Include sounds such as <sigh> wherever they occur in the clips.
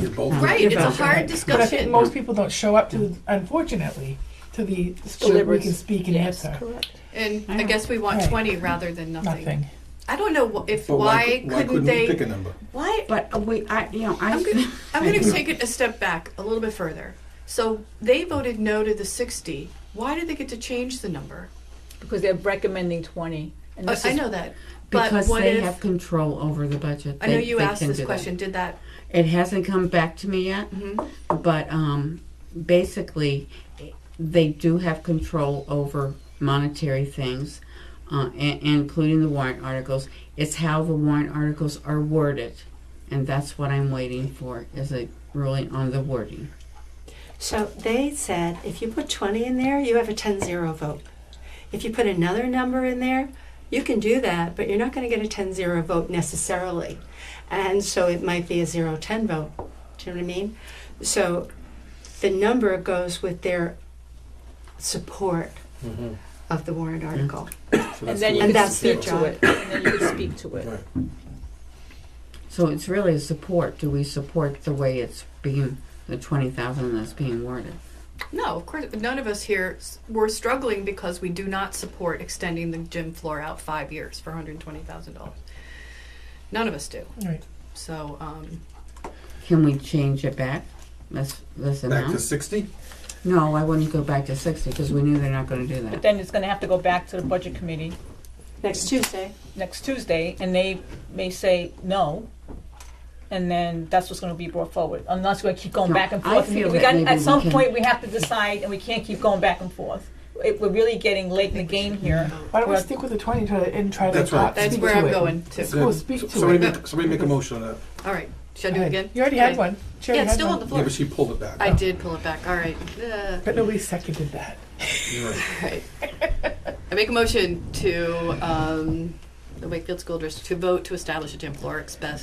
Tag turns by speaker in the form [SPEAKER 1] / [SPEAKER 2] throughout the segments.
[SPEAKER 1] You're both-
[SPEAKER 2] Right,
[SPEAKER 3] You're
[SPEAKER 2] it's a
[SPEAKER 3] both
[SPEAKER 2] hard
[SPEAKER 3] right.
[SPEAKER 2] discussion.
[SPEAKER 3] But I think most people don't show up to, unfortunately, to the, so that we can speak and answer.
[SPEAKER 4] correct.
[SPEAKER 2] And I guess we want
[SPEAKER 3] Right.
[SPEAKER 2] twenty rather than nothing.
[SPEAKER 3] Nothing.
[SPEAKER 2] I don't know wh- if,
[SPEAKER 1] But why,
[SPEAKER 2] why
[SPEAKER 1] cou- why
[SPEAKER 2] couldn't
[SPEAKER 1] couldn't we pick
[SPEAKER 2] they,
[SPEAKER 1] a number?
[SPEAKER 2] why,
[SPEAKER 4] But uh, we, I, you know,
[SPEAKER 2] I'm
[SPEAKER 4] <laughs>
[SPEAKER 2] gonna,
[SPEAKER 4] I,
[SPEAKER 2] I'm gonna take it a step back, a little bit further. So they voted no to the sixty, why did they get to change the number?
[SPEAKER 5] because they're recommending twenty. And
[SPEAKER 2] Uh,
[SPEAKER 5] this
[SPEAKER 2] I
[SPEAKER 5] is-
[SPEAKER 2] know that, but
[SPEAKER 4] because
[SPEAKER 2] what
[SPEAKER 4] they have
[SPEAKER 2] if,
[SPEAKER 4] control over the budget.
[SPEAKER 2] I know
[SPEAKER 4] They-
[SPEAKER 2] you
[SPEAKER 4] they
[SPEAKER 2] asked
[SPEAKER 4] can
[SPEAKER 2] this
[SPEAKER 4] do that.
[SPEAKER 2] question, did that,
[SPEAKER 4] It hasn't come back to me yet,
[SPEAKER 2] Mhm.
[SPEAKER 4] but um, basically, they do have control over monetary things, uh, and, including the warrant articles. It's how the warrant articles are worded, and that's what I'm waiting for is a ruling on the wording.
[SPEAKER 6] So they said if you put 20 in there, you have a 10 0 vote. If you put another number in there, you can do that, but you're not going to get a 10 0 vote necessarily. And so it might be a 0 10 vote. Do you know what I mean? So the number goes with their support of the warrant article.
[SPEAKER 1] So
[SPEAKER 5] And then you
[SPEAKER 6] And
[SPEAKER 5] can
[SPEAKER 6] that's
[SPEAKER 5] speak
[SPEAKER 6] their
[SPEAKER 5] to it, and then you can speak to it.
[SPEAKER 1] Right.
[SPEAKER 4] So it's really a support. Do we support the way it's being the twenty thousand that's being worded?
[SPEAKER 2] no, of course, none of us here, s- we're struggling because we do not support extending the gym floor out five years for hundred and twenty thousand dollars. None of us do,
[SPEAKER 3] Right.
[SPEAKER 2] so, um,
[SPEAKER 4] Can we change it back? This this
[SPEAKER 1] Back to
[SPEAKER 4] amount?
[SPEAKER 1] sixty?
[SPEAKER 4] No, I wouldn't go back to sixty because we knew they're not going to do
[SPEAKER 5] But
[SPEAKER 4] that.
[SPEAKER 5] then it's gonna have to go back to the budget committee
[SPEAKER 6] Next Tuesday.
[SPEAKER 5] next Tuesday, and they may say no. And then that's what's gonna be brought forward, unless we keep going
[SPEAKER 4] No,
[SPEAKER 5] back and
[SPEAKER 4] I
[SPEAKER 5] forth.
[SPEAKER 4] feel
[SPEAKER 5] We
[SPEAKER 4] that
[SPEAKER 5] got,
[SPEAKER 4] maybe
[SPEAKER 5] at
[SPEAKER 4] we
[SPEAKER 5] some
[SPEAKER 4] can-
[SPEAKER 5] point, we have to decide, and we can't keep going back and forth. It, we're really getting late in the game here.
[SPEAKER 3] Why don't we
[SPEAKER 5] Well-
[SPEAKER 3] stick with the twenty try to- and try to.
[SPEAKER 1] That's right.
[SPEAKER 3] uh,
[SPEAKER 2] that's
[SPEAKER 3] speak
[SPEAKER 2] where
[SPEAKER 3] to
[SPEAKER 2] I'm
[SPEAKER 3] it.
[SPEAKER 2] going to,
[SPEAKER 3] Cool, speak to
[SPEAKER 1] Somebody
[SPEAKER 3] it.
[SPEAKER 1] make, somebody make a motion on that.
[SPEAKER 2] all right, should I do
[SPEAKER 3] Go
[SPEAKER 2] it
[SPEAKER 3] ahead.
[SPEAKER 2] again?
[SPEAKER 3] You already had
[SPEAKER 2] Okay.
[SPEAKER 3] one. She
[SPEAKER 2] Yeah,
[SPEAKER 3] already
[SPEAKER 2] it's
[SPEAKER 3] had
[SPEAKER 2] still on
[SPEAKER 3] one.
[SPEAKER 2] the
[SPEAKER 1] Yeah,
[SPEAKER 2] floor.
[SPEAKER 1] but she pulled it back.
[SPEAKER 2] I did pull it back. All right. Uh,
[SPEAKER 3] But nobody seconded that.
[SPEAKER 1] You're right.
[SPEAKER 2] all right. I make a motion to um, the Wakefield School District to vote to establish a gym floor expense,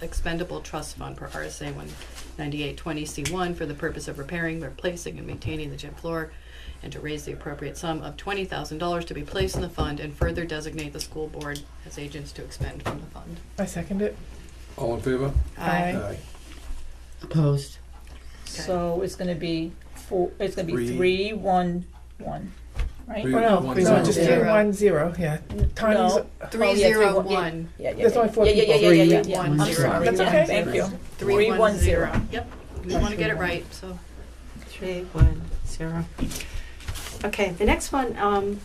[SPEAKER 2] expendable trust fund per RSA 19820C1 for the purpose of repairing, replacing, and maintaining the gym floor, and to raise the appropriate sum of $20,000 to be placed in the fund and further designate the school board as agents to expend from the fund.
[SPEAKER 3] I second it.
[SPEAKER 1] All in favor?
[SPEAKER 3] Aye.
[SPEAKER 4] Opposed.
[SPEAKER 5] So it's gonna be four, it's gonna be
[SPEAKER 1] Three.
[SPEAKER 5] three, one, one, right?
[SPEAKER 1] Three,
[SPEAKER 3] Oh no,
[SPEAKER 1] one,
[SPEAKER 3] no,
[SPEAKER 1] zero.
[SPEAKER 3] just
[SPEAKER 2] Zero.
[SPEAKER 3] do one zero. Yeah. Tony's.
[SPEAKER 5] No.
[SPEAKER 2] Three
[SPEAKER 5] Oh, yeah, three,
[SPEAKER 2] zero
[SPEAKER 5] one, yeah.
[SPEAKER 2] one.
[SPEAKER 5] Yeah, yeah,
[SPEAKER 3] There's
[SPEAKER 5] yeah.
[SPEAKER 3] only four
[SPEAKER 5] Yeah, yeah,
[SPEAKER 3] people.
[SPEAKER 5] yeah, yeah, yeah,
[SPEAKER 4] Three,
[SPEAKER 5] yeah.
[SPEAKER 2] one,
[SPEAKER 5] I'm
[SPEAKER 2] zero.
[SPEAKER 5] sorry.
[SPEAKER 3] That's
[SPEAKER 5] Yeah,
[SPEAKER 3] okay.
[SPEAKER 5] Thank you.
[SPEAKER 2] Three one zero.
[SPEAKER 5] 310.
[SPEAKER 2] Yep. We want to get it right, so.
[SPEAKER 6] Three, one, zero. Okay, the next one um,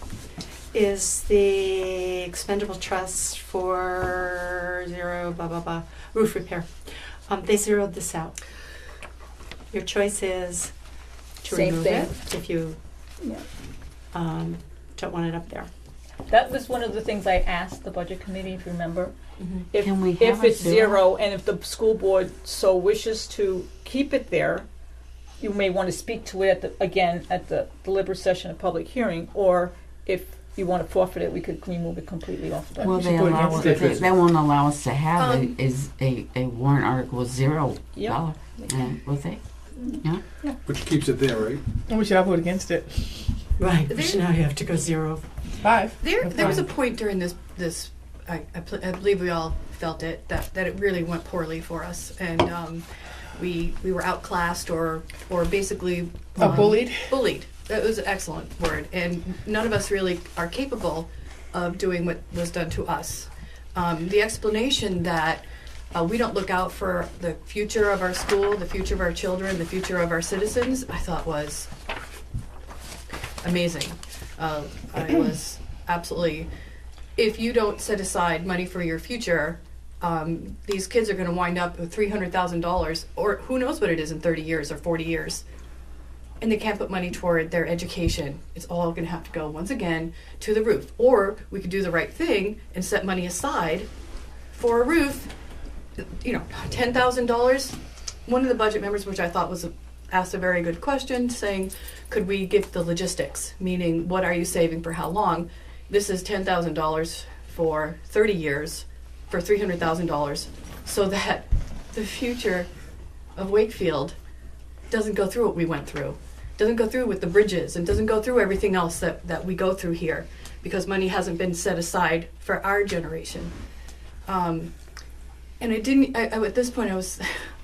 [SPEAKER 6] is the expendable trust for zero, blah, blah, blah, roof repair. Um, they zeroed this out. Your choice is to
[SPEAKER 5] Same
[SPEAKER 6] remove
[SPEAKER 5] thing.
[SPEAKER 6] it if you
[SPEAKER 5] Yeah.
[SPEAKER 6] um, don't want it up there.
[SPEAKER 5] That was one of the things I asked the budget committee, if you remember.
[SPEAKER 2] Mm-hmm.
[SPEAKER 5] If,
[SPEAKER 4] Can we
[SPEAKER 5] if
[SPEAKER 4] have it
[SPEAKER 5] it's
[SPEAKER 4] zero?
[SPEAKER 5] zero and if the school board so wishes to keep it there, you may want to speak to it at the, again, at the deliberative session of public hearing, or if you want to forfeit it, we could remove it completely off the.
[SPEAKER 4] Well,
[SPEAKER 3] should
[SPEAKER 4] they
[SPEAKER 3] go
[SPEAKER 4] allow
[SPEAKER 3] against
[SPEAKER 4] they,
[SPEAKER 1] it.
[SPEAKER 4] they won't allow us to have
[SPEAKER 2] Um,
[SPEAKER 4] a, is a, a warrant article zero
[SPEAKER 5] Yep.
[SPEAKER 4] dollar. And would they?
[SPEAKER 1] Which keeps it there, right?
[SPEAKER 3] We should all vote against it.
[SPEAKER 6] Right,
[SPEAKER 2] which
[SPEAKER 6] now you have to go zero.
[SPEAKER 3] Five.
[SPEAKER 2] There,
[SPEAKER 3] Okay.
[SPEAKER 2] there was a point during this, this, I, I, pl- I believe we all felt it, that, that it really went poorly for us. And, um, we, we were outclassed or, or basically.
[SPEAKER 3] A
[SPEAKER 2] um,
[SPEAKER 3] bullied.
[SPEAKER 2] Bullied. That was an excellent word. And none of us really are capable of doing what was done to us. Um, the explanation that uh, we don't look out for the future of our school, the future of our children, the future of our citizens, I thought was amazing. Uh, I was absolutely. If you don't set aside money for your future, um, these kids are going to wind up with three hundred thousand dollars, or who knows what it is in thirty years or forty years, and they can't put money toward their education. It's all going to have to go once again to the roof. Or we could do the right thing and set money aside for a roof. You know, ten thousand dollars. One of the budget members, which I thought was a, asked a very good question, saying, "Could we give the logistics? Meaning, what are you saving for how long? This is ten thousand dollars for thirty years, for three hundred thousand dollars, so that <laughs> the future of Wakefield doesn't go through what we went through, doesn't go through with the bridges, and doesn't go through everything else that, that we go through here, because money hasn't been set aside for our generation. Um, and I didn't. I, I, at this point, I was, <laughs>